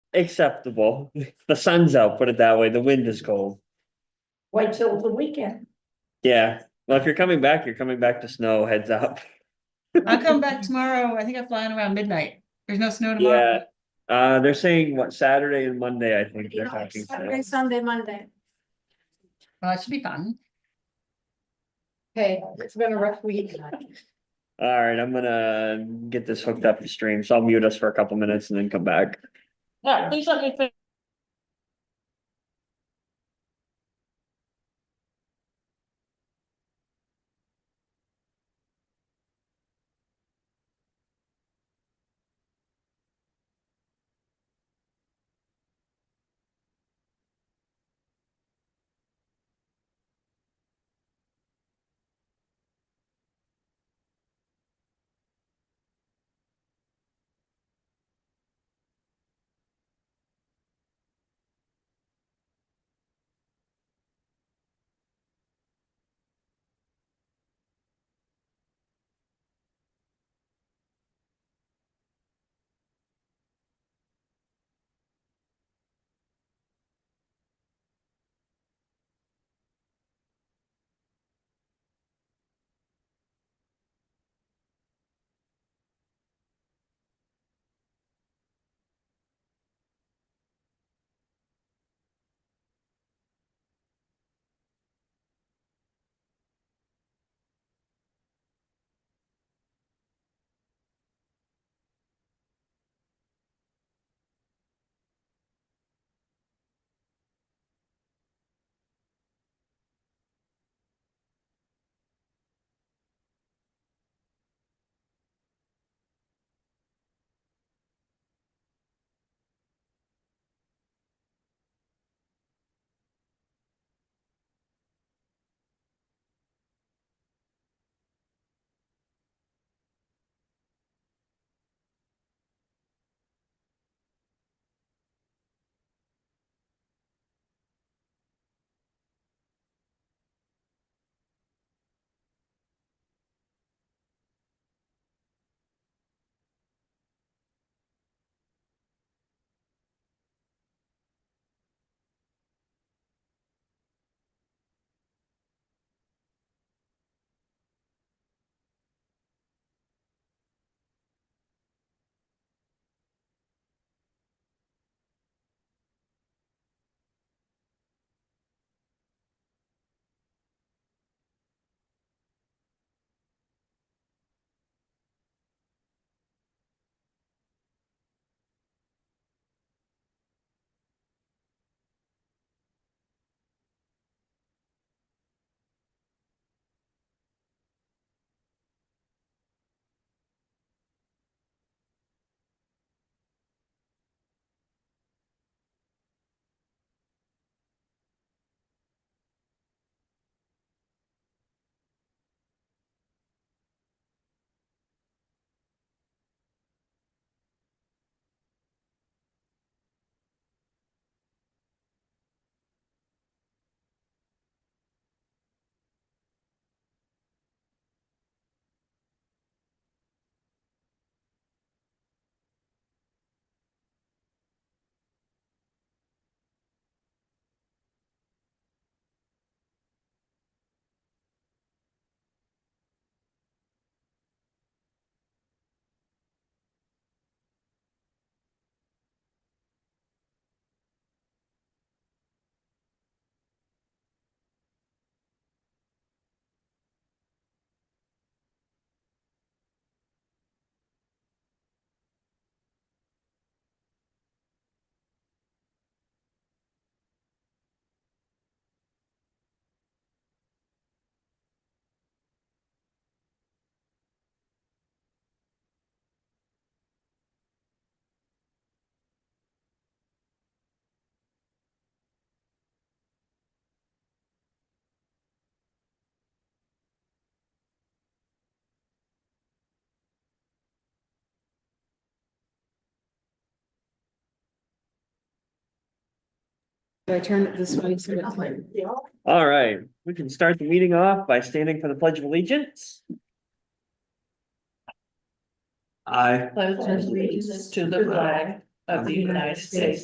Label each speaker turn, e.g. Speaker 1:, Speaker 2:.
Speaker 1: acceptable. The sun's out, put it that way. The wind is cold.
Speaker 2: Wait till the weekend.
Speaker 1: Yeah, well, if you're coming back, you're coming back to snow, heads up.
Speaker 3: I'll come back tomorrow. I think I'm flying around midnight. There's no
Speaker 1: Yeah,
Speaker 3: snow tomorrow.
Speaker 1: uh, they're saying what Saturday and Monday, I think they're talking.
Speaker 4: Saturday,
Speaker 1: snow.
Speaker 4: Sunday, Monday.
Speaker 3: Well, it should be fun.
Speaker 2: Hey, it's been a rough week.
Speaker 1: All right, I'm gonna get this hooked up to stream, so I'll mute us for a couple minutes and then come back.
Speaker 2: Yeah, please let me finish.
Speaker 5: Do I turn it this way?
Speaker 2: Oh
Speaker 5: so it's like-
Speaker 1: All right, we can start the meeting off by standing for the Pledge of Allegiance. I
Speaker 2: allegiance to the flag of the United States